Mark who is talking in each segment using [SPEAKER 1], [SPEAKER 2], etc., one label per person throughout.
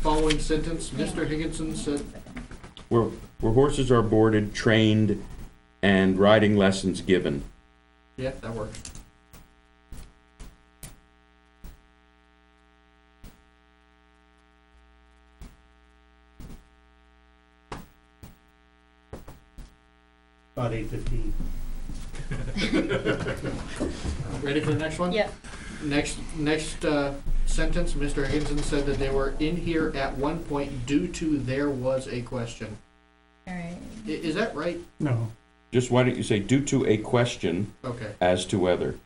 [SPEAKER 1] following sentence, Mr. Higginson said,
[SPEAKER 2] Where, where horses are boarded, trained, and riding lessons given.
[SPEAKER 1] yeah, that works.
[SPEAKER 3] About eight fifteen.
[SPEAKER 1] Ready for the next one?
[SPEAKER 4] Yep.
[SPEAKER 1] Next, next, uh, sentence, Mr. Higginson said that they were in here at one point due to there was a question.
[SPEAKER 4] All right.
[SPEAKER 1] I- is that right?
[SPEAKER 3] No,
[SPEAKER 2] Just why don't you say due to a question
[SPEAKER 1] Okay,
[SPEAKER 2] as to whether? So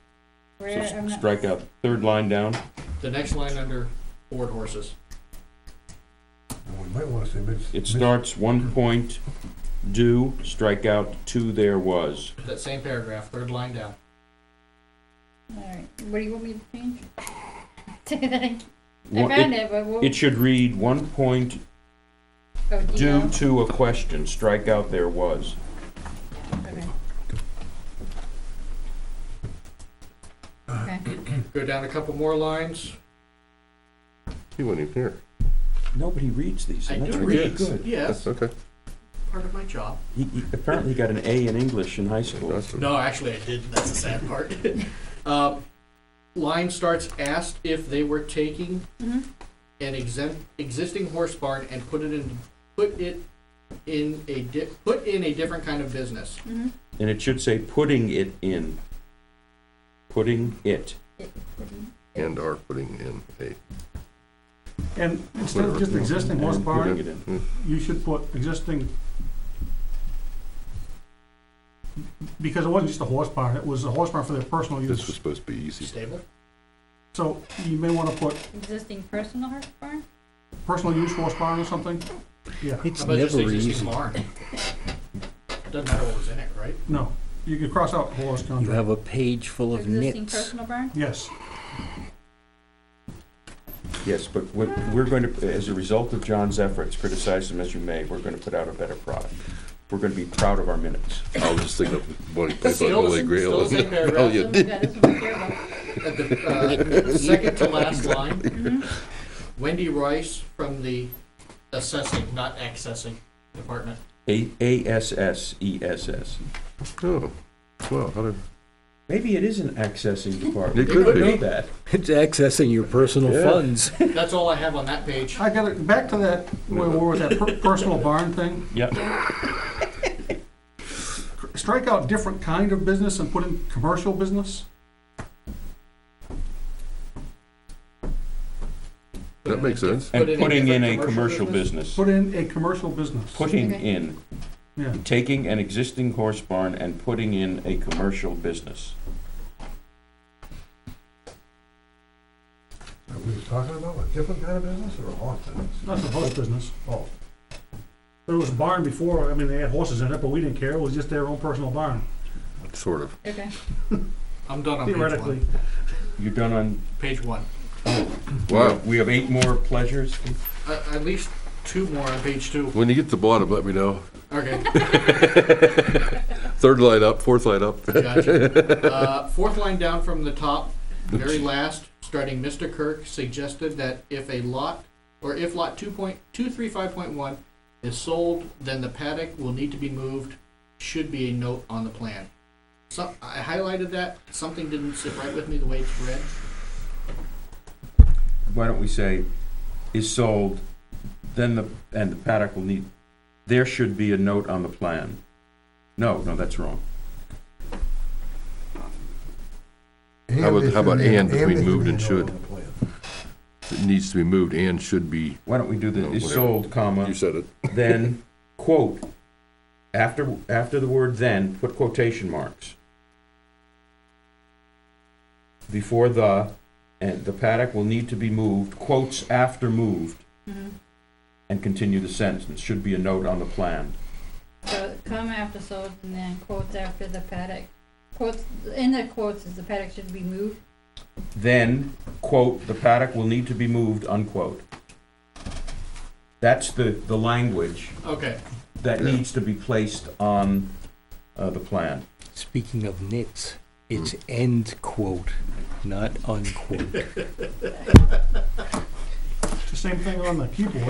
[SPEAKER 4] Where, I'm
[SPEAKER 2] s-
[SPEAKER 4] not,
[SPEAKER 2] strike out third line down.
[SPEAKER 1] the next line under board horses.
[SPEAKER 5] Well, We might wanna say mis-
[SPEAKER 2] It
[SPEAKER 5] mis-
[SPEAKER 2] starts one point due, strike out two there was.
[SPEAKER 1] That same paragraph, third line down.
[SPEAKER 4] all right. What do you want me to change? I
[SPEAKER 2] One-
[SPEAKER 4] found
[SPEAKER 2] it-
[SPEAKER 4] it, but what?
[SPEAKER 2] It should read one point
[SPEAKER 4] oh, do you
[SPEAKER 2] due
[SPEAKER 4] know?
[SPEAKER 2] to a question, strike out there was.
[SPEAKER 4] Okay. Okay.
[SPEAKER 1] Go down a couple more lines.
[SPEAKER 6] He wasn't even here.
[SPEAKER 2] Nobody reads these,
[SPEAKER 1] I
[SPEAKER 2] and that's
[SPEAKER 1] do
[SPEAKER 2] really
[SPEAKER 1] read.
[SPEAKER 2] good.
[SPEAKER 1] Yes,
[SPEAKER 6] Okay.
[SPEAKER 1] part of my job.
[SPEAKER 2] He, he apparently got an A in English in high school.
[SPEAKER 6] Awesome.
[SPEAKER 1] No, actually, I didn't. That's the sad part. um, line starts asked if they were taking
[SPEAKER 4] Mm-hmm.
[SPEAKER 1] an exempt, existing horse barn and put it in put it in a di- put in a different kind of business.
[SPEAKER 4] Mm-hmm.
[SPEAKER 2] And it should say putting it in. Putting it.
[SPEAKER 6] And are putting in a.
[SPEAKER 3] and instead of just existing horse
[SPEAKER 2] And
[SPEAKER 3] barn,
[SPEAKER 2] Putting it in.
[SPEAKER 3] you should put existing. Because it wasn't just a horse barn, it was a horse barn for their personal
[SPEAKER 6] This was
[SPEAKER 3] use.
[SPEAKER 6] supposed to be easy.
[SPEAKER 1] Stable.
[SPEAKER 3] So you may wanna put
[SPEAKER 4] Existing personal horse barn?
[SPEAKER 3] personal use horse barn or something? Yeah,
[SPEAKER 1] How
[SPEAKER 7] It's
[SPEAKER 1] about just
[SPEAKER 7] never
[SPEAKER 1] existing
[SPEAKER 7] easy.
[SPEAKER 1] barn? Doesn't matter what was in it, right?
[SPEAKER 3] no, you could cross out horse
[SPEAKER 7] You
[SPEAKER 3] contract,
[SPEAKER 7] have a page full of
[SPEAKER 4] Existing
[SPEAKER 7] nits.
[SPEAKER 4] personal barn?
[SPEAKER 3] yes.
[SPEAKER 2] Yes, but we're, we're going to, as a result of John's efforts, criticize him as you may, we're going to put out a better product. We're going to be proud of our minutes.
[SPEAKER 6] I was just thinking of Bonnie Pike on Holy
[SPEAKER 1] still
[SPEAKER 6] Grail.
[SPEAKER 1] the same paragraph.
[SPEAKER 6] Oh, you
[SPEAKER 4] This
[SPEAKER 6] did.
[SPEAKER 4] one's good, this one's terrible.
[SPEAKER 1] At the uh, second to last line,
[SPEAKER 4] Mm-hmm.
[SPEAKER 1] Wendy Rice from the assessing, not accessing department.
[SPEAKER 2] A, E, A-S-S-E-S-S.
[SPEAKER 6] Oh, wow, how did,
[SPEAKER 2] Maybe it is an accessing department.
[SPEAKER 6] It
[SPEAKER 2] They
[SPEAKER 6] could
[SPEAKER 2] don't
[SPEAKER 6] be.
[SPEAKER 2] know that.
[SPEAKER 7] It's accessing your personal
[SPEAKER 6] Yeah.
[SPEAKER 7] funds.
[SPEAKER 1] That's all I have on that page.
[SPEAKER 3] I got it, back to that, where we were with that per- personal barn thing,
[SPEAKER 2] Yeah,
[SPEAKER 3] strike out different kind of business and put in commercial business?
[SPEAKER 6] that makes sense.
[SPEAKER 2] and
[SPEAKER 1] Put it in
[SPEAKER 2] putting in a
[SPEAKER 1] different commercial
[SPEAKER 2] commercial business.
[SPEAKER 3] Put in a commercial business.
[SPEAKER 2] Putting
[SPEAKER 4] Okay.
[SPEAKER 2] in,
[SPEAKER 3] Yeah,
[SPEAKER 2] taking an existing horse barn and putting in a commercial business.
[SPEAKER 5] Are we talking about a different kind of business or a horse business?
[SPEAKER 3] that's a horse business.
[SPEAKER 5] Oh,
[SPEAKER 3] There was a barn before, I mean, they had horses in it, but we didn't care, it was just their own personal barn,
[SPEAKER 6] Sort of.
[SPEAKER 4] Okay.
[SPEAKER 1] I'm done on page
[SPEAKER 3] theoretically.
[SPEAKER 1] one.
[SPEAKER 2] You're done on,
[SPEAKER 1] Page one.
[SPEAKER 6] Wow.
[SPEAKER 2] we have eight more pleasures.
[SPEAKER 1] Uh, at least two more on page two.
[SPEAKER 6] When you get to the bottom, let me know.
[SPEAKER 1] Okay.
[SPEAKER 6] Third line up, fourth line up.
[SPEAKER 1] Gotcha. Uh, fourth line down from the top, very last, starting Mr. Kirk suggested that if a lot, or if lot two point, two three five point one is sold, then the paddock will need to be moved, should be a note on the plan. So, I highlighted that, something didn't sit right with me the way it's read.
[SPEAKER 2] why don't we say, is sold, then the, and the paddock will need, there should be a note on the plan. No, no, that's wrong.
[SPEAKER 6] How about-
[SPEAKER 5] it
[SPEAKER 6] how about
[SPEAKER 5] should be-
[SPEAKER 6] and between
[SPEAKER 5] it should
[SPEAKER 6] moved
[SPEAKER 5] be
[SPEAKER 6] and
[SPEAKER 5] noted
[SPEAKER 6] should?
[SPEAKER 5] on the plan.
[SPEAKER 6] It needs to be moved and should be,
[SPEAKER 2] Why don't we do
[SPEAKER 6] No,
[SPEAKER 2] the, is
[SPEAKER 6] whatever.
[SPEAKER 2] sold, comma,
[SPEAKER 6] you said it.
[SPEAKER 2] then, quote, after, after the word then, put quotation marks. Before the, and the paddock will need to be moved, quotes after moved,
[SPEAKER 4] Mhm.
[SPEAKER 2] and continue the sentence, should be a note on the plan.
[SPEAKER 4] So comma after sold and then quotes after the paddock. Quotes, in the quotes is the paddock should be moved.
[SPEAKER 2] then, quote, the paddock will need to be moved, unquote. That's the, the language
[SPEAKER 1] Okay,
[SPEAKER 2] that
[SPEAKER 6] Yeah.
[SPEAKER 2] needs to be placed on uh, the plan.
[SPEAKER 7] Speaking of nits, it's end quote, not unquote.
[SPEAKER 3] It's the same thing on the keyboard.